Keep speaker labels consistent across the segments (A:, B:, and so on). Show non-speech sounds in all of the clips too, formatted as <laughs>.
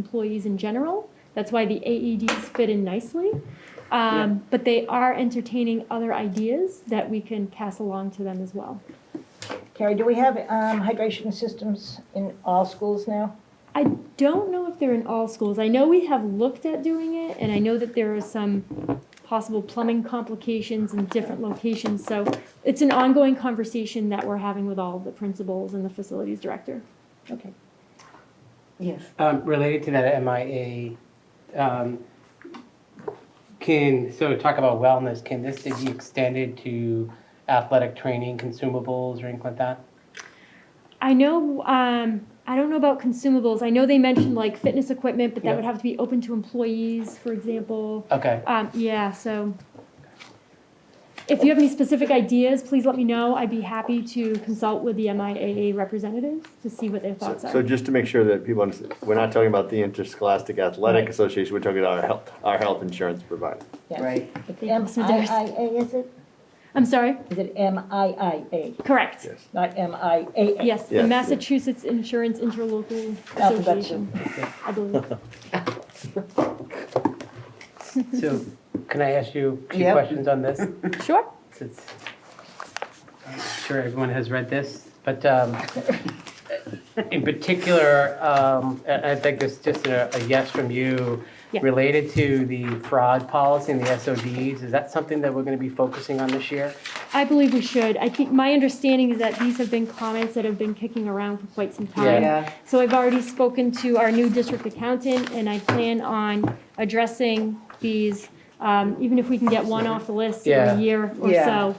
A: employees in general. That's why the AEDs fit in nicely. Um, But they are entertaining other ideas that we can pass along to them as well.
B: Carrie, do we have um, hydration systems in all schools now?
A: I don't know if they're in all schools. I know we have looked at doing it, and I know that there are some possible plumbing complications in different locations. So it's an ongoing conversation that we're having with all the principals and the facilities director.
B: Okay.
C: Yes.
D: Um, related to that MIA, um, can, so talk about wellness, can this be extended to athletic training, consumables, or anything like that?
A: I know, um, I don't know about consumables. I know they mentioned like fitness equipment, but that would
D: Yeah.
A: have to be open to employees, for example.
D: Okay,
A: Um, yeah, so if you have any specific ideas, please let me know. I'd be happy to consult with the MIAA representatives to see what their
E: So
A: thoughts
E: so
A: are.
E: just to make sure that people understand, we're not talking about the Interscholastic Athletic
D: Right.
E: Association, we're talking about our health, our health insurance provider.
B: Yeah.
C: Right.
B: It's
A: you, Mr. Davis.
B: MIIA, is it?
A: I'm sorry,
B: Is it MIIA,
A: correct.
E: Yes.
B: not MIAA?
A: Yes, the
E: Yes.
A: Massachusetts Insurance Interlocal
B: Alphabetical.
A: Association, I believe. <laughs>
D: so can I ask you two
C: Yep.
D: questions on this?
A: Sure.
D: Since I'm sure everyone has read this, but um, in particular, um, I I think it's just a a yes from you.
A: Yeah.
D: Related to the fraud policy and the SODs, is that something that we're going to be focusing on this year?
A: I believe we should. I think, my understanding is that these have been comments that have been kicking around for quite some time.
C: Yeah.
A: So I've already spoken to our new district accountant, and I plan on addressing these, um, even if we can get one off the list
D: Yeah.
A: every year or
C: Yeah.
A: so,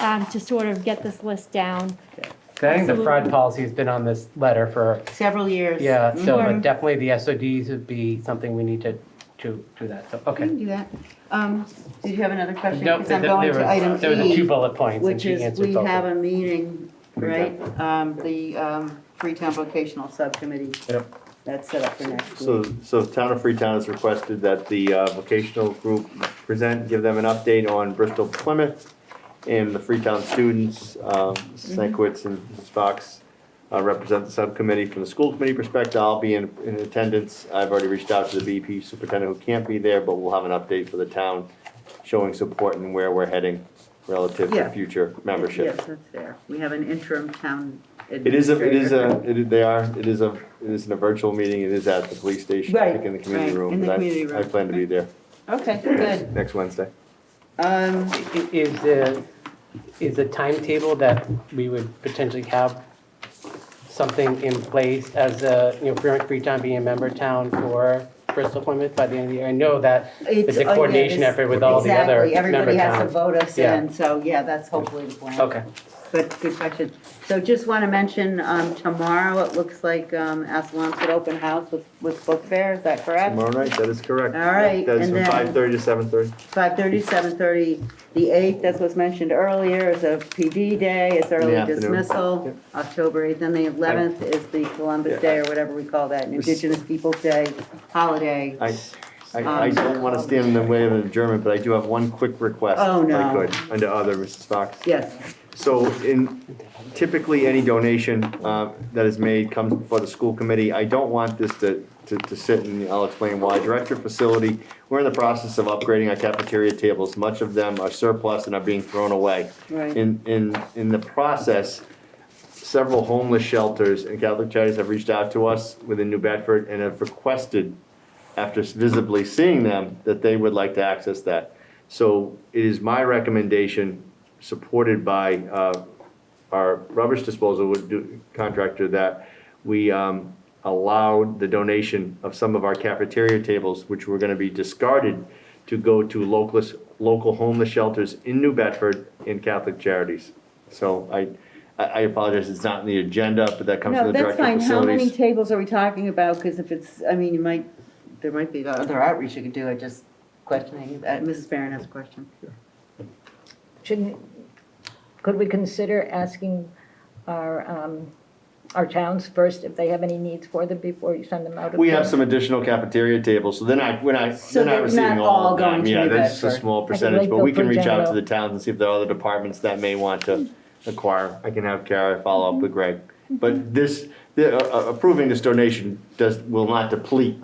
A: um, to sort of get this list down.
D: 'Cause I think the fraud policy has been on this letter for,
C: Several years.
D: yeah, so
A: Mhm.
C: Mm-hmm.
D: but definitely the SODs would be something we need to, to do that, so,
C: We can
D: okay.
C: do that. Um, Did you have another question?
D: Nope,
C: Mm-hmm. Because I'm
D: there-
C: going
D: there
C: to
D: was-
C: item
D: There were
C: E,
D: two bullet points and
C: Which
D: she
C: is,
D: answered
C: we
D: both. of
C: have
D: them.
C: a meeting, right? Um, The um, Freetown Vocational Subcommittee.
E: Yep.
C: That's set up for next
E: So,
C: week.
E: so Town of Freetown has requested that the uh, vocational group present, give them an update on Bristol Plymouth and the Freetown students, um, Sankwitz and Mrs. Fox uh, represent the subcommittee from the school committee perspective. I'll be in, in attendance. I've already reached out to the BP superintendent who can't be there, but we'll have an update for the town showing support and where we're heading relative
C: Yeah.
E: to future membership.
C: Yes, that's fair. We have an interim town
E: It is a,
C: administrator.
E: it is a, it is- they are, it is a, it isn't a virtual meeting, it is at the police station, I think in the
C: Right,
E: community
C: right,
E: room.
C: in the
E: but I-
C: community room.
E: I plan to be there
C: Okay, good.
E: next Wednesday.
C: Um,
D: I- Is the, is the timetable that we would potentially have something in place as a, you know, Freetown- Freetown being a member town for Bristol Plymouth by the end of the year? I know that
C: It's
D: it's a
C: oh, yeah,
D: coordination
C: this-
D: effort with all the other
C: Exactly, everybody
D: member
C: has to
D: towns.
C: vote us
D: Yeah.
C: in, so yeah, that's hopefully the plan.
D: Okay,
C: But good question. So just want to mention, um, tomorrow, it looks like um, Asalon's at open house with, with book fair, is that correct?
E: Tomorrow night, that is correct.
C: All right,
E: That is
C: and
E: from
C: then-
E: five thirty to seven thirty.
C: 5:30, 7:30, the 8th, as was mentioned earlier, is a PD day, it's early
E: afternoon.
C: dismissal,
E: Yep.
C: October 8th, and the 11th is the Columbus
E: Yeah.
C: Day, or whatever we call that, Indigenous Peoples' Day holiday.
E: I, I, I don't wanna stand in the way of an adjournment, but I do have one quick request.
C: Oh,
E: If
C: no.
E: I could, under other, Mrs. Fox.
C: Yes,
E: So in, typically, any donation uh, that is made comes before the school committee. I don't want this to, to, to sit, and I'll explain why. Director of Facility, we're in the process of upgrading our cafeteria tables. Much of them are surplus and are being thrown away.
C: Right.
E: In, in, in the process, several homeless shelters and Catholic charities have reached out to us within New Bedford and have requested, after visibly seeing them, that they would like to access that. So it is my recommendation, supported by uh, our rubbish disposal would do- contractor, that we um, allowed the donation of some of our cafeteria tables, which were going to be discarded, to go to local, local homeless shelters in New Bedford and Catholic charities. So I, I I apologize, it's not in the agenda, but that comes
C: no,
E: from the
C: that's
E: director of
C: fine, how many
E: facilities.
C: tables are we talking about? Because if it's, I mean, you might, there might be other outreach you could do, I just questioning, Uh, Mrs. Barron has a question.
B: Shouldn't, could we consider asking our, um, our towns first if they have any needs for them before you send them out? of
E: We
B: town?
E: have some additional cafeteria tables, so they're not, we're not,
C: So
E: they're not
C: they're
E: receiving
C: not
E: all
C: all
E: of them.
C: going to
E: Yeah,
C: New
E: that's a
C: Bedford.
E: small
B: think
E: percentage, but we
B: Lakeville
E: can reach out to
B: General.
E: the towns and see if there are other departments that may want to
C: Hmm.
E: acquire. I can have Kara follow
C: Mm-hmm.
E: up with Greg. But this, the- uh, uh, approving this donation does, will not deplete